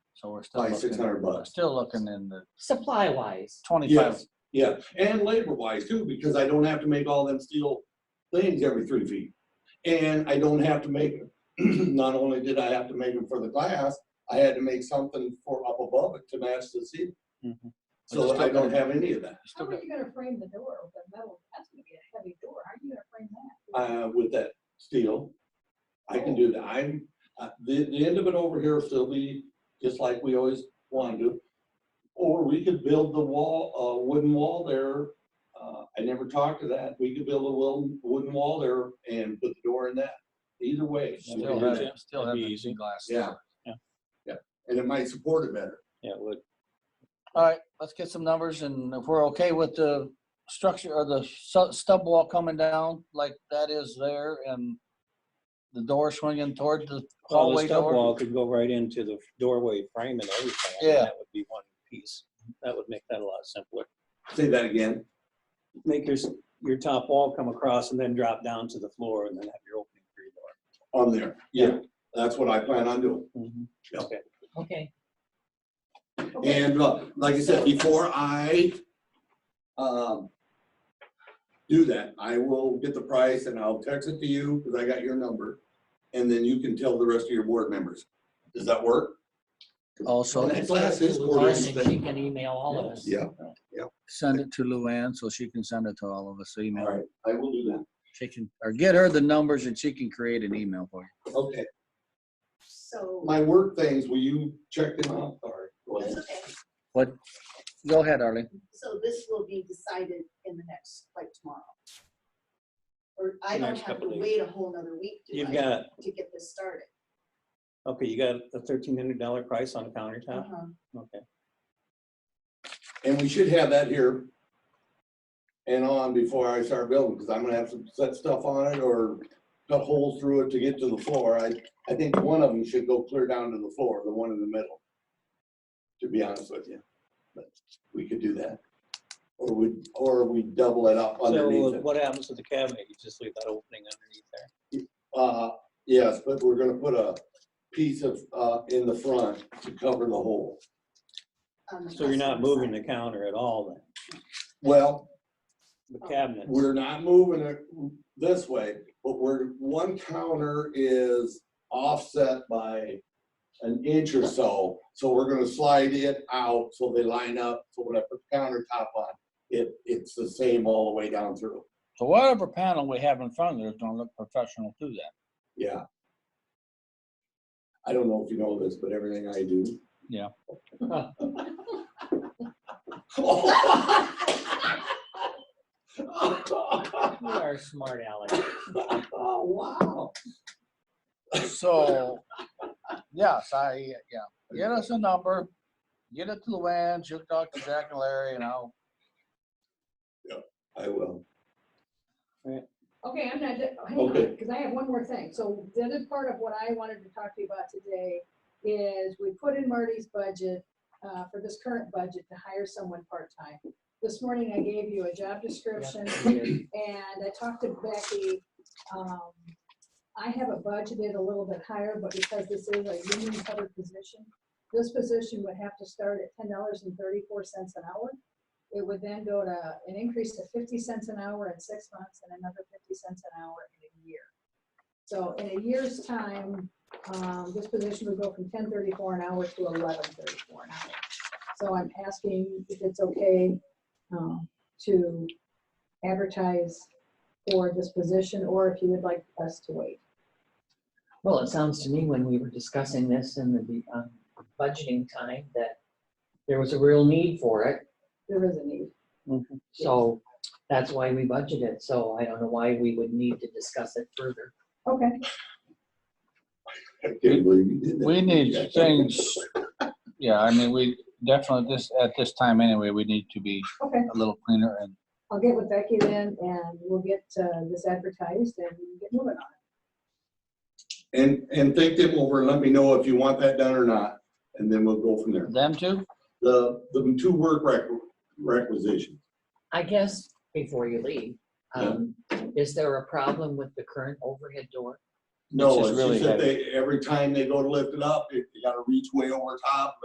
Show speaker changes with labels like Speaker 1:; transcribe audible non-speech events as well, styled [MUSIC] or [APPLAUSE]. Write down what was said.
Speaker 1: So we're still.
Speaker 2: Like
Speaker 1: looking-
Speaker 2: 600 bucks.
Speaker 1: Still looking in the
Speaker 3: supply wise.
Speaker 1: twenty-five,
Speaker 2: Yes. Yeah, and labor wise too, because I don't have to make all them steel things every three feet. And I don't have to make, [CLEARS THROAT] not only did I have to make them for the glass, I had to make something for up above it to match the ceiling.
Speaker 1: Mhm.
Speaker 2: So
Speaker 1: But
Speaker 2: that I
Speaker 1: you're still
Speaker 2: don't have any of that,
Speaker 1: still
Speaker 4: How are
Speaker 1: got-
Speaker 4: you gonna frame the door with the metal? That's gonna be a heavy door. How are you gonna frame that?
Speaker 2: uh, with that steel. I can do that. I'm, uh, the, the end of it over here will still be just like we always wanted to. Or we could build the wall, uh, wooden wall there. Uh, I never talked to that. We could build a wooden, wooden wall there and put the door in that. Either way. we
Speaker 1: still
Speaker 2: can do
Speaker 1: have,
Speaker 2: that.
Speaker 1: it- still have
Speaker 5: That'd be
Speaker 1: the
Speaker 5: easy.
Speaker 1: glass.
Speaker 2: Yeah. And it might support it better.
Speaker 5: Yeah, it would.
Speaker 1: All right, let's get some numbers and if we're okay with the structure or the su- stub wall coming down like that is there and the door swinging toward the
Speaker 5: Well,
Speaker 1: hallway
Speaker 5: the stub wall
Speaker 1: door.
Speaker 5: could go right into the doorway frame and everything. I mean,
Speaker 1: Yeah.
Speaker 5: That would be one piece. That would make that a lot simpler.
Speaker 2: Say that again.
Speaker 5: Make your, s- your top wall come across and then drop down to the floor and then have your opening for your door.
Speaker 2: On there. Yeah, that's what I plan on doing.
Speaker 3: Okay.
Speaker 4: Okay,
Speaker 2: And uh, like I said, before I um, do that, I will get the price and I'll text it to you because I got your number. And then you can tell the rest of your board members. Does that work?
Speaker 1: Also,
Speaker 2: Well, that's last this
Speaker 3: Luann,
Speaker 2: quarter's
Speaker 3: and She
Speaker 2: thing.
Speaker 3: can email all of us.
Speaker 2: Yeah,
Speaker 1: send it to Luann so she can send it to all of us,
Speaker 2: all
Speaker 1: email.
Speaker 2: right, I will do that.
Speaker 1: She can, or get her the numbers and she can create an email for you.
Speaker 2: Okay,
Speaker 4: so.
Speaker 2: my work things, will you check them out? Sorry. Go ahead.
Speaker 1: Go ahead, Arlene.
Speaker 4: so this will be decided in the next, like tomorrow. Or I
Speaker 5: don't Next have to couple days.
Speaker 4: a whole nother week
Speaker 5: You've got,
Speaker 4: to get this started.
Speaker 5: okay, you got a thirteen hundred dollar price on a countertop?
Speaker 4: Uh-huh,
Speaker 2: Uh-huh.
Speaker 5: Okay.
Speaker 2: And we should have that here and on before I start building, because I'm gonna have to set stuff on it or cut holes through it to get to the floor. I, I think one of them should go clear down to the floor, the one in the middle. To be honest with you, but we could do that. Or we, or we double it up underneath
Speaker 5: So uh,
Speaker 2: it.
Speaker 5: what happens to the cabinet? You just leave that opening underneath there?
Speaker 2: Uh, yes, but we're gonna put a piece of, uh, in the front to cover the hole.
Speaker 5: So you're not moving the counter at all then?
Speaker 2: Well,
Speaker 5: The cabinet?
Speaker 2: Oh. We're not moving it this way, but we're, one counter is offset by an inch or so. So we're gonna slide it out so they line up. So when I put the countertop on, it, it's the same all the way down through.
Speaker 1: So whatever panel we have in front of there is gonna look professional to that.
Speaker 2: Yeah. I don't know if you know this, but everything I do.
Speaker 1: Yeah.
Speaker 3: You are smart, Alex.
Speaker 2: [LAUGHS] Oh, wow.
Speaker 1: So, yes, I, yeah, get us a number, get it to Luann, she'll talk to Jack and Larry and I'll,
Speaker 2: I will.
Speaker 4: Okay, I'm not, de- hang on,
Speaker 2: Okay.
Speaker 4: because I have one more thing. So the other part of what I wanted to talk to you about today is we put in Marty's budget uh, for this current budget to hire someone part-time. This morning I gave you a job
Speaker 5: [LAUGHS]
Speaker 4: description
Speaker 3: Weird.
Speaker 4: and I talked to Becky. um, I have it budgeted a little bit higher, but because this is a union covered position, this position would have to start at ten dollars and thirty-four cents an hour. It would then go to an increase to fifty cents an hour in six months and another fifty cents an hour in a year. So in a year's time, um, this position would go from ten thirty-four an hour to eleven thirty-four an hour. So I'm asking if it's okay, um, to advertise for this position, or if you would like us to wait.
Speaker 3: [LAUGHS] Well, it sounds to me when we were discussing this in the um, budgeting time that there was a real need for it.
Speaker 4: There is a need.
Speaker 3: So that's why we budgeted. So I don't know why we would need to discuss it further.
Speaker 4: Okay.
Speaker 2: I can't believe you did that.
Speaker 1: we need things. Yeah, I mean, we definitely, this, at this time anyway, we need to be
Speaker 4: Okay,
Speaker 1: a little cleaner and
Speaker 4: I'll get with Becky then, and we'll get uh, this advertised and get moving on it.
Speaker 2: And, and think them over and let me know if you want that done or not, and then we'll go from there.
Speaker 1: them too.
Speaker 2: The, the two work requ- requisitions.
Speaker 3: I guess before you leave, um, is there a problem with the current overhead door?
Speaker 2: No,
Speaker 1: This is
Speaker 2: it's
Speaker 1: really
Speaker 2: just that they, every time they go to lift it up, it- you gotta reach way over top,